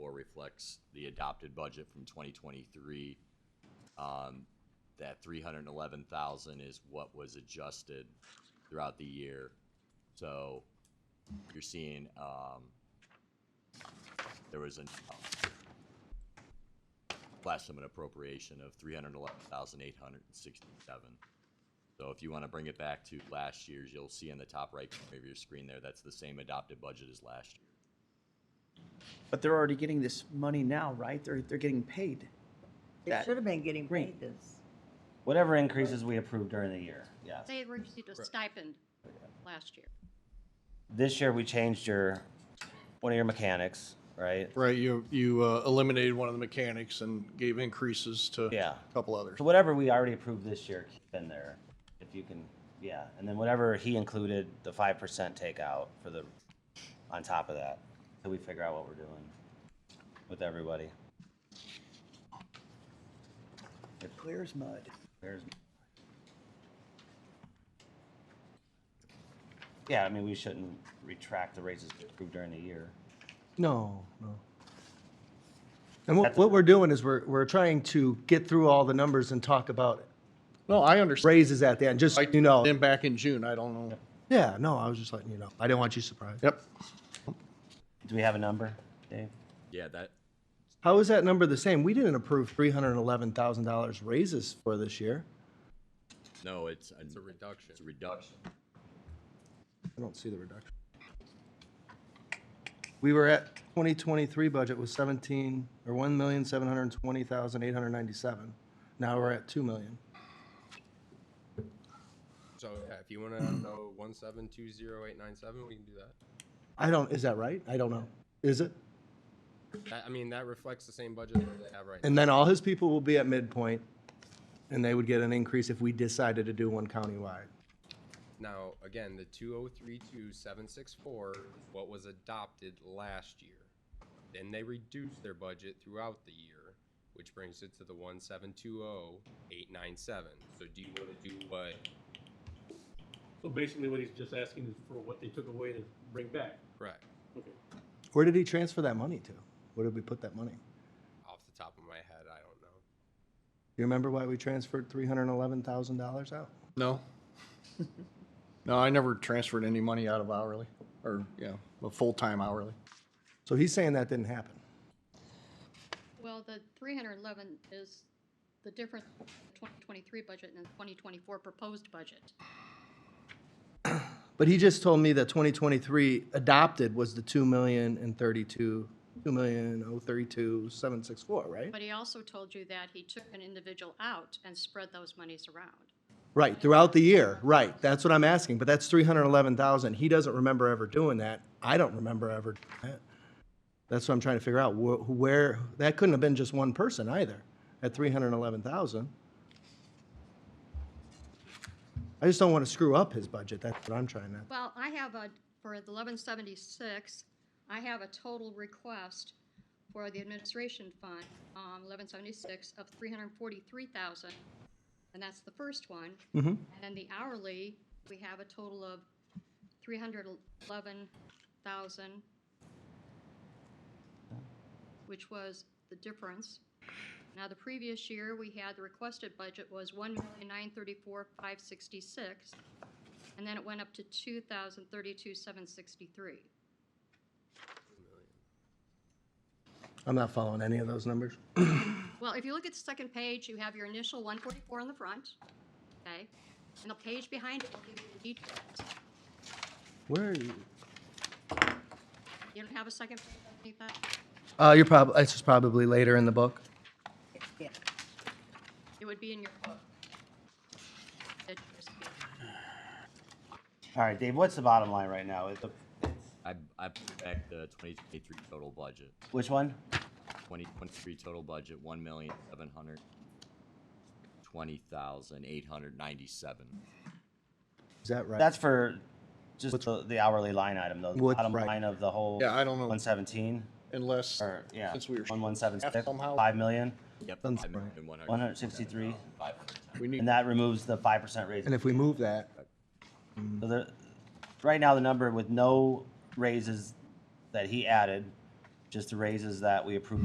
reflects the adopted budget from twenty twenty-three. Um, that three hundred and eleven thousand is what was adjusted throughout the year. So you're seeing, um, there was a last summon appropriation of three hundred and eleven thousand eight hundred and sixty-seven. So if you want to bring it back to last year's, you'll see in the top right corner of your screen there, that's the same adopted budget as last year. But they're already getting this money now, right? They're, they're getting paid. They That- should have been getting paid Great. this. Whatever increases we approved during the year, yes. They had received a stipend last year. This year, we changed your, one of your mechanics, right? Right, you, you uh, eliminated one of the mechanics and gave increases to Yeah. a couple others. So whatever we already approved this year, keep in there, if you can, yeah, and then whatever he included, the five percent takeout for the, on top of that, so we figure out what we're doing with everybody. Clear as mud. There's. Yeah, I mean, we shouldn't retract the raises we approved during the year. No, no. And what, what we're doing is we're, we're trying to get through all the numbers and talk about No, I understand. raises at the end, just, you know. Then back in June, I don't know. Yeah, no, I was just letting you know. I didn't want you surprised. Yep. Do we have a number, Dave? Yeah, that, How is that number the same? We didn't approve three hundred and eleven thousand dollars raises for this year. no, it's. It's a reduction. It's a reduction. I don't see the reduction. We were at twenty twenty-three budget was seventeen, or one million, seven hundred and twenty thousand, eight hundred and ninety-seven. Now we're at two million. So yeah, if you want to know one seven two zero eight nine seven, we can do that. I don't, is that right? I don't know. Is it? that. I mean, that reflects the same budget that they have right now. And then all his people will be at midpoint, and they would get an increase if we decided to do one countywide. Now, again, the two zero three two seven six four, what was adopted last year, then they reduced their budget throughout the year, which brings it to the one seven two zero eight nine seven. So do you want to do what? So basically what he's just asking is for what they took away to bring back. Correct. Okay. Where did he transfer that money to? Where did we put that money? Do Off the top of my head, I don't know. you remember why we transferred three hundred and eleven thousand dollars out? No. No, I never transferred any money out of hourly or, you know, a full-time hourly. So he's saying that didn't happen. Well, the three hundred eleven is the difference between the twenty twenty-three budget and the twenty twenty-four proposed budget. But he just told me that twenty twenty-three adopted was the two million and thirty-two, two million oh thirty-two seven six four, right? But he also told you that he took an individual out and spread those monies around. Right, throughout the year, right. That's what I'm asking, but that's three hundred and eleven thousand. He doesn't remember ever doing that. I don't remember ever doing that. That's what I'm trying to figure out, wh- where, that couldn't have been just one person either, at three hundred and eleven thousand. I just don't want to screw up his budget. That's what I'm trying to. Well, I have a, for the eleven seventy-six, I have a total request for the administration fund, um, eleven seventy-six of three hundred and forty-three thousand. And that's the first one. mm-hmm. And then the hourly, we have a total of three hundred eleven thousand, which was the difference. Now, the previous year, we had, the requested budget was one million nine thirty-four five sixty-six. And then it went up to two thousand thirty-two, seven sixty-three. I'm not following any of those numbers. Well, if you look at the second page, you have your initial one forty-four on the front, okay? And the page behind it will give you the details. Where are you? You don't have a second page underneath that? Uh, you're probably, this is probably later in the book. Yeah. It would be in your book. It is- All right, Dave, what's the bottom line right now? Is the- I, I put back the twenty twenty-three total budget, Which one? twenty twenty-three total budget, one million seven hundred twenty thousand eight hundred ninety-seven. Is that right? That's for just the, the hourly line item, though. the What's bottom right? line of the whole. Yeah, I don't know. One seventeen, Unless, or, yeah. since we were, One one seven half six, somehow. five million, Yep. Sounds five right. million one hundred- one hundred sixty-three, five hundred ten. we need, and that removes the five percent raise. And if we move that, So the, right now, the number with no raises that he added, just the raises that we approved